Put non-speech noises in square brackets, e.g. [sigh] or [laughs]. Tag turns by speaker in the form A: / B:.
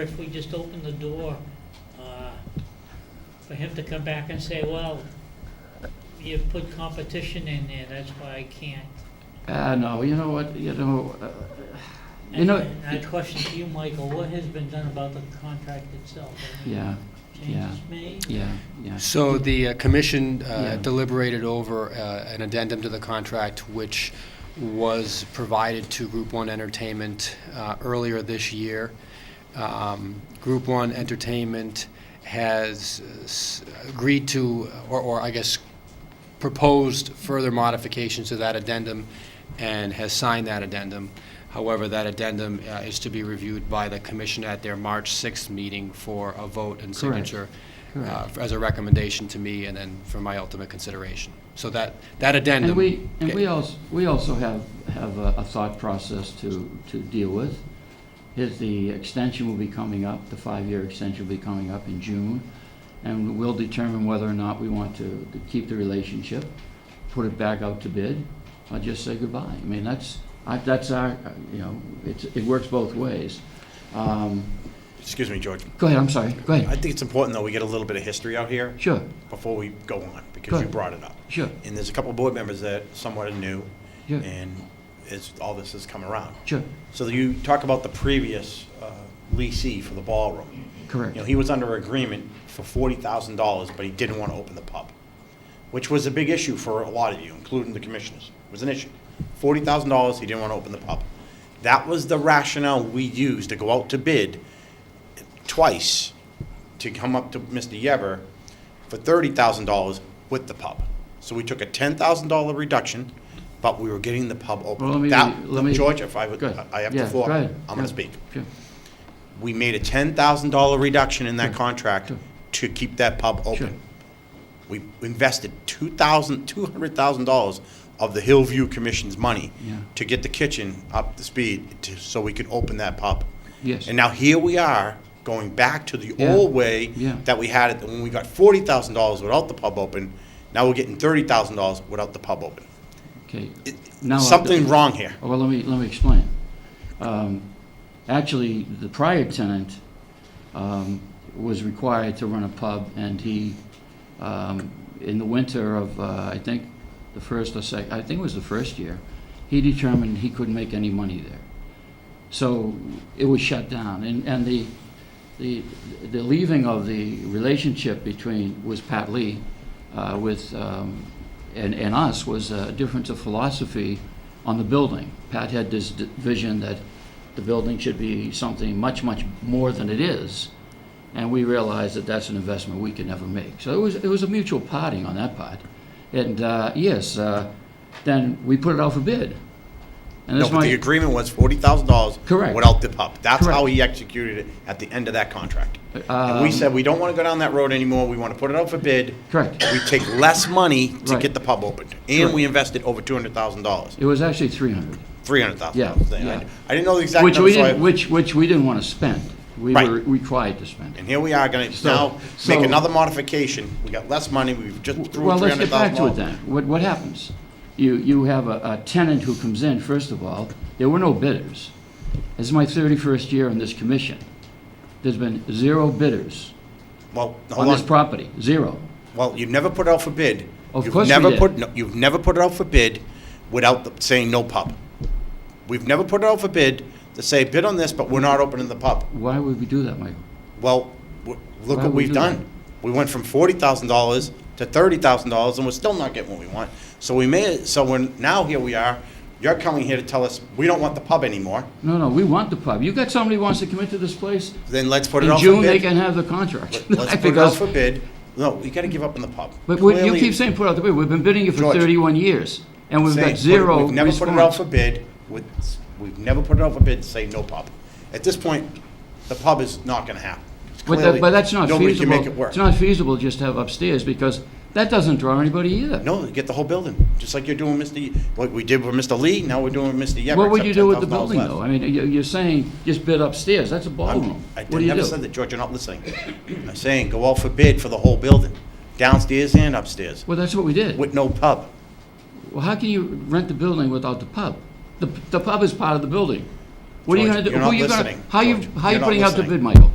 A: If we just open the door uh, for him to come back and say, well, you put competition in there, that's why I can't.
B: Uh, no, you know what, you know, uh, you
A: And-
B: know,
A: And I question to you, Michael, what has been done about the contract itself? Have any
B: yeah, yeah.
A: Changes made?
B: yeah, yeah.
C: So the uh, commission
B: Yeah.
C: uh, deliberated over uh, an addendum to the contract, which was provided to Group One Entertainment uh, earlier this year. Um, Group One Entertainment has uh, s- agreed to, or- or I guess proposed further modifications to that addendum and has signed that addendum. However, that addendum uh, is to be reviewed by the commission at their March 6th meeting for a vote and
B: Correct.
C: signature uh,
B: Correct.
C: as a recommendation to me and then for my ultimate consideration. So that, that addendum.
B: And we, and we also, we also have, have a a thought process to, to deal with. Is the extension will be coming up, the five-year extension will be coming up in June, and we'll determine whether or not we want to to keep the relationship, put it back out to bid, or just say goodbye. I mean, that's, I, that's our, uh, you know, it's, it works both ways. Um,
D: Excuse me, George.
B: Go ahead, I'm sorry, go
D: I
B: ahead.
D: think it's important, though, we get a little bit of history out here
B: Sure,
D: before we go on,
B: Go
D: because you
B: ahead.
D: brought it up.
B: sure,
D: And there's a couple of board members that somewhat are new,
B: Yeah.
D: and it's, all this has come around.
B: sure,
D: So you talk about the previous uh, leasee for the ballroom.
B: correct.
D: You know, he was under agreement for forty thousand dollars, but he didn't want to open the pub, which was a big issue for a lot of you, including the commissioners. It was an issue. Forty thousand dollars, he didn't want to open the pub. That was the rationale we used to go out to bid twice to come up to Mr. Yever for thirty thousand dollars with the pub. So we took a ten thousand dollar reduction, but we were getting the pub
B: Well, let
D: open.
B: me-
D: That-
B: let me-
D: George, if I would,
B: Go ahead.
D: I have
B: Yeah,
D: the
B: go
D: floor.
B: ahead.
D: I'm going
B: Yeah,
D: to speak
B: sure.
D: we made a ten thousand dollar reduction in that contract
B: Sure.
D: to keep that pub
B: Sure.
D: open. We invested two thousand, two hundred thousand dollars of the Hillview Commission's money
B: Yeah.
D: to get the kitchen up to speed to, so we could open that pub.
B: Yes.
D: And now here we are, going back to the
B: Yeah.
D: old way
B: Yeah.
D: that we had it, when we got forty thousand dollars without the pub open, now we're getting thirty thousand dollars without the pub open.
B: Okay.
D: It-
B: Now, uh,
D: Something wrong here.
B: Well, let me, let me explain. Um, Actually, the prior tenant um, was required to run a pub, and he, um, in the winter of, uh, I think, the first or sec, I think it was the first year, he determined he couldn't make any money there. So it was shut down, and, and the, the, the leaving of the relationship between, was Pat Lee, uh, with, um, and, and us, was a difference of philosophy on the building. Pat had this d- vision that the building should be something much, much more than it is, and we realized that that's an investment we could never make. So it was, it was a mutual parting on that part. And, uh, yes, uh, then we put it out for bid. And
D: No,
B: that's
D: but
B: my.
D: the agreement was forty thousand dollars.
B: Correct.
D: Without the pub. That's how
B: Correct. Um,
D: he executed it at the end of that contract. And we said, we don't want to go down that road anymore, we want to put it out for bid.
B: Correct.
D: We take less money to
B: Right.
D: get the pub opened. And we invested over two hundred thousand dollars,
B: It was actually 300.
D: three hundred thousand
B: Yeah,
D: dollars.
B: yeah.
D: I didn't know the exact
B: Which we
D: number, so
B: didn't,
D: I,
B: which, which we didn't want to spend. We
D: Right.
B: were required to spend it.
D: and here we are gonna
B: So-
D: now make
B: so-
D: another modification. We got less money, we've just threw
B: Well,
D: three
B: let's get
D: hundred
B: back
D: thousand
B: to it
D: dollars.
B: then. What, what happens? You, you have a, a tenant who comes in, first of all, there were no bidders. This is my 31st year on this commission. There's been zero bidders
D: Well,
B: on
D: hold
B: this
D: on,
B: property, zero.
D: well, you never put it out for bid.
B: Of
D: You've
B: course we
D: never
B: did.
D: put- no, You've never put it out for bid without the- saying no pub. We've never put it out for bid to say bid on this, but we're not opening the pub.
B: Why would we do that, Michael?
D: Well, w- look
B: Why
D: what
B: we
D: we've
B: do that?
D: done. We went from forty thousand dollars to thirty thousand dollars, and we're still not getting what we want. So we may, so we're, now here we are, you're coming here to tell us, we don't want the pub anymore,
B: No, no, we want the pub. You got somebody who wants to come into this place,
D: then let's put it
B: in
D: out
B: June,
D: for
B: they
D: bid.
B: can have the contract. [laughs]
D: Let's put it out
B: Because-
D: for bid. No, we gotta give up on the pub.
B: But we- you
D: Clearly,
B: keep saying put out the bid. We've been bidding it for
D: George.
B: 31 years, and we've
D: saying,
B: got
D: put it-
B: zero
D: We've never put it out
B: response.
D: for bid, with, we've never put it out for bid to say no pub. At this point, the pub is not gonna happen.
B: But
D: Clearly,
B: that- but that's not
D: Nobody can
B: feasible.
D: make it work.
B: It's not feasible just to have upstairs, because that doesn't draw anybody either.
D: No, get the whole building, just like you're doing Mr., Ye- what we did with Mr. Lee, now we're doing with Mr. Yever.
B: What would
D: except
B: you do with the
D: $10,000
B: building,
D: less.
B: though? I mean, you- you're saying just bid upstairs, that's a ballroom.
D: I'm- I
B: What do you
D: never
B: do?
D: said that, George, you're not listening. I'm saying, go out for bid for the whole building, downstairs and upstairs,
B: Well, that's what we did.
D: with no pub.
B: Well, how can you rent the building without the pub? The the pub is part of the building. What are you
D: George,
B: gonna do?
D: you're
B: Who
D: not
B: you gonna-
D: listening.
B: How you,
D: George,
B: how you
D: you're not
B: putting out the
D: listening.
B: bid, Michael?